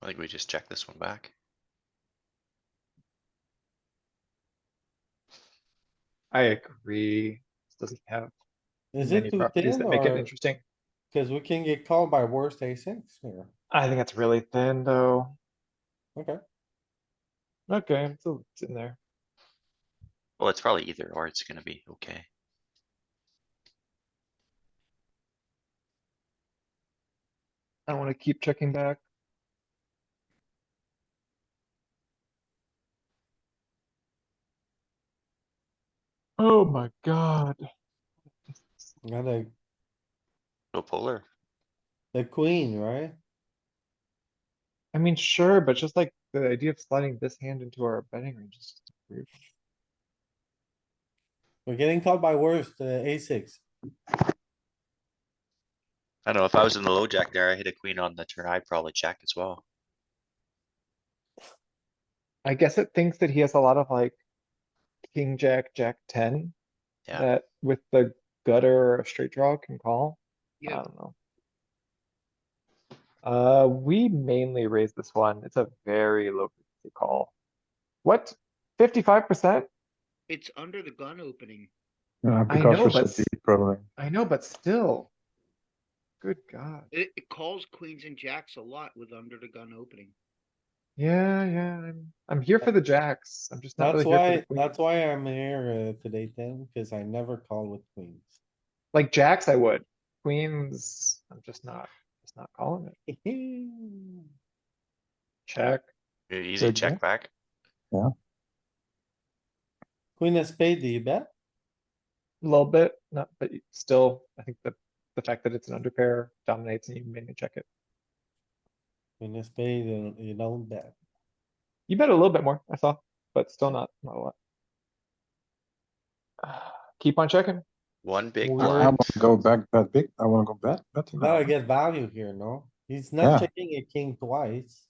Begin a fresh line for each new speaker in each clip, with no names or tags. I think we just check this one back.
I agree. This Doesn't have
Is
many
it too
properties
thin
that make it
or,
interesting.
cause we can get called by worst a six here,
I think it's really thin, though.
okay,
Okay, it's a- it's in there.
Well, it's probably either or it's gonna be okay.
I don't wanna keep checking back. Oh my god.
got a,
No polar.
the queen, right?
I mean, sure, but just like the idea of sliding this hand into our betting range is weird.
We're getting called by worst, uh, a six,
I don't know, if I was in the low jack there, I hit a queen on the turn, I'd probably check as well.
I guess it thinks that he has a lot of like king, jack, jack ten.
Yeah.
That with the gutter or a straight draw can call. I don't know. Uh, we mainly raise this one. It's a very low frequency call. What? Fifty-five percent?
It's under the gun opening.
Uh,
I
because
know,
we're
but
so
s-
deep, probably.
I know, but still. Good god.
It, it calls queens and jacks a lot with under the gun opening.
Yeah, yeah, I'm, I'm here for the jacks. I'm just not
that's
really here
why,
for the
that's
queens.
why I'm here, uh, today, Tim, cause I never call with queens.
Like jacks, I would. Queens, I'm just not, just not calling it. Check.
E- Easy
Good
check
bet.
back.
Queen of spade, do you bet?
A little bit, not, but you- still, I think the, the fact that it's an underpair dominates and you mainly check it.
Queen of spade, you don't- you don't bet.
You bet a little bit more, I saw, but still not, not a lot. Keep on checking.
One big
Well,
I, I
blind.
want to go back that big. I want to go back better.
Now I get value here, no? He's
Yeah.
not checking a king twice.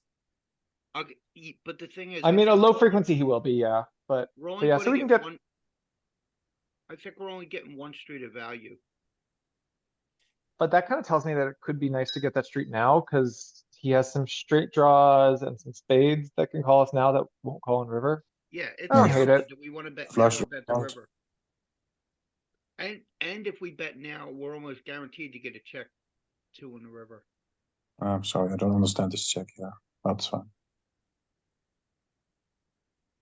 Okay, y- but the thing is.
I mean, a
think
low
we're
frequency he will be, yeah, but
only- We're only
yeah, so
gonna
we can get-
one- I think we're only getting one street of value.
But that kind of tells me that it could be nice to get that street now, cuz he has some straight draws and some spades that can call us now that won't call in river.
Yeah. it's
I don't
now,
hate
but
it.
Do we wanna bet? now
Flush
or bet the
out.
river? And, and if we bet now, we're almost guaranteed to get a check two in the river.
I'm sorry, I don't understand this check here. That's fine.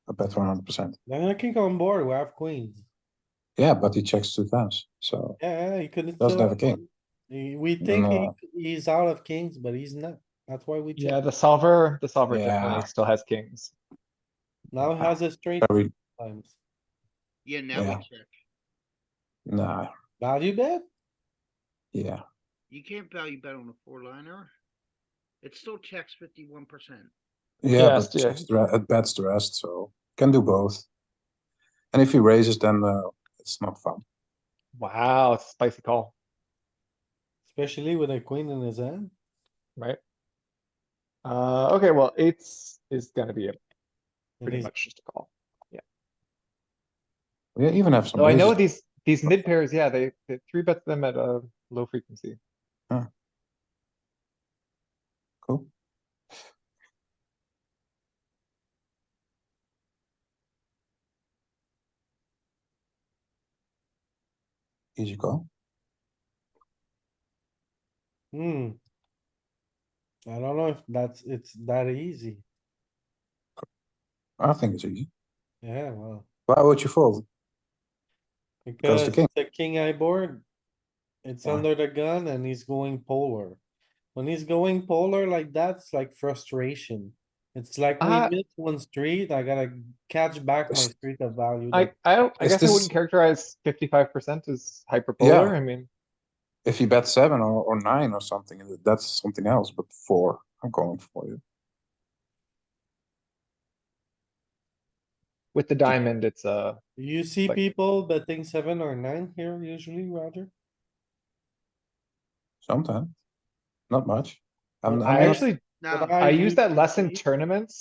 I bet 100%.
Then I can go on board, we have queens.
Yeah, but he checks two times. So,
Yeah, he couldn't.
Doesn't
still
have a king.
He- We think he-
No.
he's out of kings, but he's not. That's why we
Yeah,
check.
the solver, the solver
Yeah.
definitely still has kings.
Now he has a straight
very,
times.
Yeah, now we
Yeah.
check.
nah,
Value bet?
yeah.
You can't value bet on a four liner. It still checks fifty-one percent.
Yeah,
Yes,
but
yeah.
checks the re- it bets the rest, so can do both. And if he raises, then uh, it's not fun.
Wow, it's a spicy call,
Especially with a queen in his hand.
right? Uh, okay, well, eights is gonna be a
and
pretty
he's-
much just a call.
We even have some.
So Oh, I know
raises.
these, these mid pairs, yeah, they, they three bet them at a low frequency.
Cool. Easy call.
Hmm. I don't know if that's, it's that easy.
I think it's easy.
Yeah, well.
Why would you fold?
Because
king.
it's a king eye board. It's
Yeah.
under the gun and he's going polar. When he's going polar like that, it's like frustration. It's like
Uh,
we missed one street, I gotta catch back my
It's-
street of value.
I,
that-
I don't, I
Is
guess I
this-
wouldn't characterize fifty-five percent as hyperpolar, I mean.
If you bet seven or, or nine or something, that's something else, but four, I'm going for you.
With the diamond, it's uh
You see
like-
people betting seven or nine here usually, Roger?
Sometimes. Not much. I'm,
Well,
I'm
I
not-
actually,
Now,
I
I use
use-
that less in tournaments